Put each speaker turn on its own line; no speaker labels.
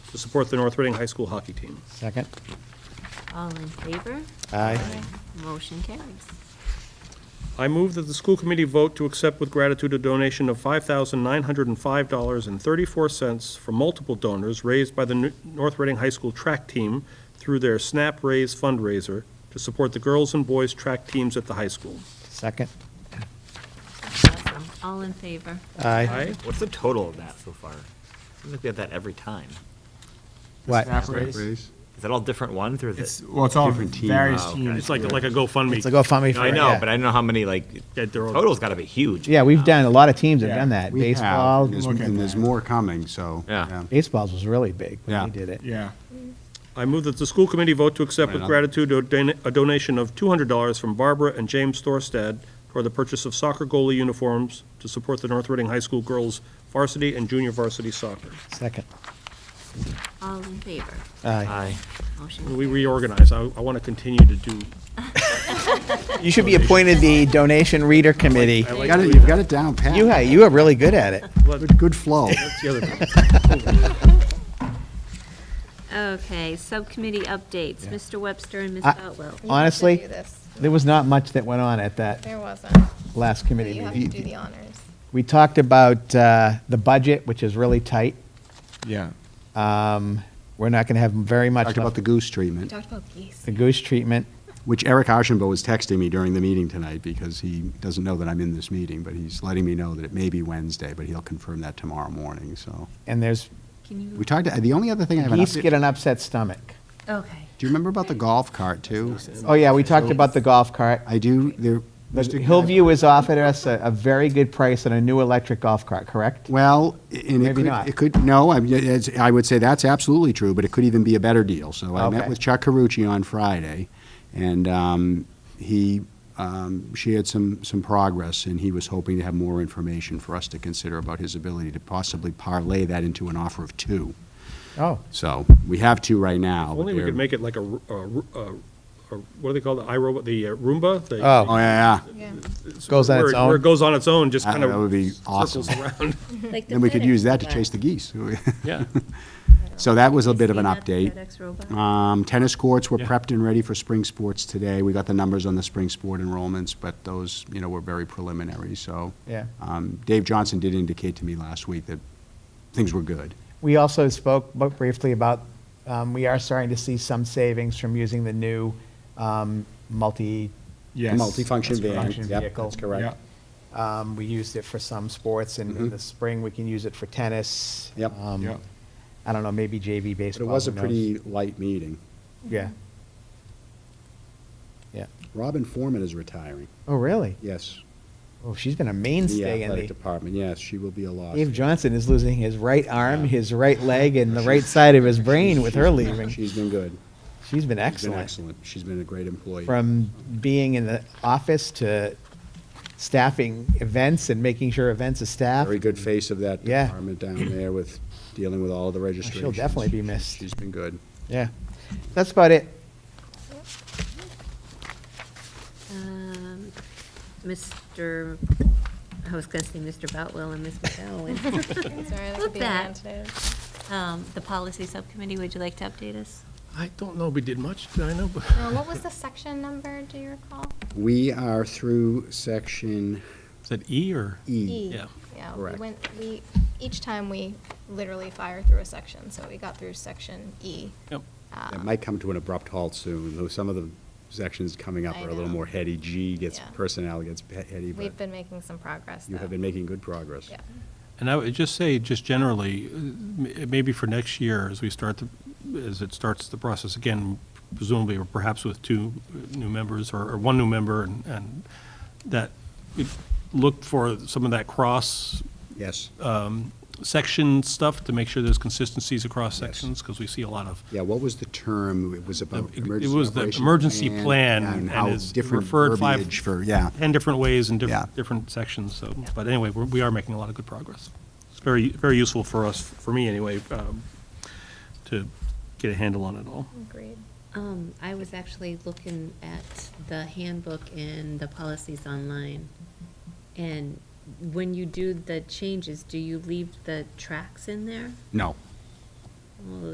to support the North Reading High School hockey team.
Second?
All in favor?
Aye.
Motion carries.
I move that the school committee vote to accept with gratitude a donation of $5,905.34 from multiple donors raised by the N- North Reading High School track team through their SNAP Raise fundraiser to support the girls and boys track teams at the high school.
Second?
Awesome. All in favor?
Aye.
Aye?
What's the total of that so far? Seems like we have that every time.
What?
Is that all different ones or is
It's,
it?
well, it's all
Different team.
various
Oh, okay.
teams.
It's like, like a GoFundMe.
It's a GoFundMe for,
I know,
yeah.
but I don't know how many like,
Yeah, they're all-
total's gotta be huge.
Yeah, we've done, a lot of teams have
Yeah,
done that.
We have,
Baseball,
and there's-
Look at
And there's
that.
more coming, so.
Yeah.
baseballs was really big when
Yeah.
we did it.
Yeah.
I move that the school committee vote to accept with
Right on.
gratitude a don- a donation of $200 from Barbara and James Thorstad for the purchase of soccer goalie uniforms to support the North Reading High School girls varsity and junior varsity soccer.
Second?
All in favor?
Aye.
Aye.
When
Motion.
we reorganize, I want to continue to do,
You should be appointed the donation reader committee.
You got it, you've got it down pat.
You, you are really good at it.
Good- Good flow.
that's the other thing.
Okay, subcommittee updates, Mr. Webster and Ms.
I-
Otwell.
You have to
Honestly,
do this.
There was not much that went on at that
There wasn't. So
last committee
You have to do
meeting.
the honors.
We talked about uh, the budget, which is really tight.
Yeah.
Um, We're not going to have very much
Talked about
left.
the goose
We
treatment,
talked about geese.
The goose treatment.
which Eric Ashenbo was texting me during the meeting tonight because he doesn't know that I'm in this meeting, but he's letting me know that it may be Wednesday, but he'll confirm that tomorrow morning, so.
And there's,
Can
We
you,
talked, the only other thing I have an
geese
update,
get
do
an upset stomach.
okay.
you remember about the golf cart, too?
Oh, yeah, we talked about the golf cart.
I do, there.
But
Mr.
Hillview has offered us a, a very good price on a new electric golf cart, correct?
Well, and
Maybe
it could,
not.
it could, no, I, it's- I would say that's absolutely true, but it could even be a better deal. So I
Okay.
met with Chuck Carucci on Friday, and um, he um, shared some, some progress, and he was hoping to have more information for us to consider about his ability to possibly parlay that into an offer of two.
Oh,
So we have two right now.
If
but
Only we
they're-
could make it like a, ru- a ru- a- a- what do they call the iRobot, the uh, Roomba? The-
Oh.
Oh, yeah, yeah.
Yeah.
Goes on
where
its
it- Where it
own.
goes on its own, just
Ah,
kind of.
that would be awesome.
Circles around.
Then we could use that to chase the geese.
Yeah.
So that was a bit of an
Seen that
update.
FedEx robot?
Um, Tennis courts were
Yeah.
prepped and ready for spring sports today. We got the numbers on the spring sport enrollments, but those, you know, were very preliminary, so.
Yeah.
Um, Dave Johnson did indicate to me last week that things were good.
We also spoke bu- briefly about, um, we are starting to see some savings from using the new, um, multi.
Yes.
Multifunction van.
Multifunction
Yep,
vehicle.
that's correct.
Yeah.
Um, we used it for some sports and in
Mhm.
the spring, we can use it for tennis.
Yep.
Um,
Yep.
I don't know, maybe JV
But it
baseball.
was a
who knows?
pretty light meeting.
Yeah. Yeah.
Robin Foreman is retiring,
Oh, really?
yes.
Oh, she's been a
in
mainstay
The
in
athletic
the.
department, yes, she will be a loss.
Dave Johnson is losing his right arm,
Yeah.
his right leg, and the right side of his brain
She's-
with
she's-
her leaving.
She's been good.
She's been
She's been
excellent.
excellent. She's been a great employee.
From being in the office to staffing events and making sure events are staffed.
Very good face of that
Yeah. Oh,
department down there with, dealing with all of the registrations.
definitely be missed.
She's been good.
Yeah. That's about it.
Um, Mr., I was gonna say Mr. Boutwell and Ms. McGowan.
Sorry, that
Look
could be
that.
around today.
Um, The policy subcommittee, would you like to update us?
I don't know, we did much, did I know? but-
Uh, What was the section number, do you recall?
We are through section
Is that E or?
E.
Yeah.
Yeah, we
Correct.
went, we, each time we literally fire through a section, so we got through section E.
Yep.
That might come to an abrupt halt soon, though some of the sections coming up
I
are a little
know.
more heady. G gets,
Yeah.
personnel gets he- heady,
We've
but
been making some progress,
you have
though.
been making good progress.
Yeah.
And I would just say, just generally, uh, m- maybe for next year, as we start, the- as it starts the process again, presumably, or perhaps with two uh, new members, or or one new member, and- and that, we look for some of that cross
Yes.
section stuff to make sure there's consistencies across
Yes.
sections, because we see a lot of,
Yeah, what was the term? It was about
it- it
emergency
was the
operation
emergency plan,
yeah,
and
how
it's
different
referred five-
verbiage for, yeah.
10 different ways in
Yeah.
different, different sections, so, but anyway, we're- we are making a lot of good progress.
It's very, very useful for us, for me anyway, um, to get a handle on it all.
Agreed.
Um, I was actually looking at the handbook and the policies online. And when you do the changes, do you leave the tracks in there?
No.
Well,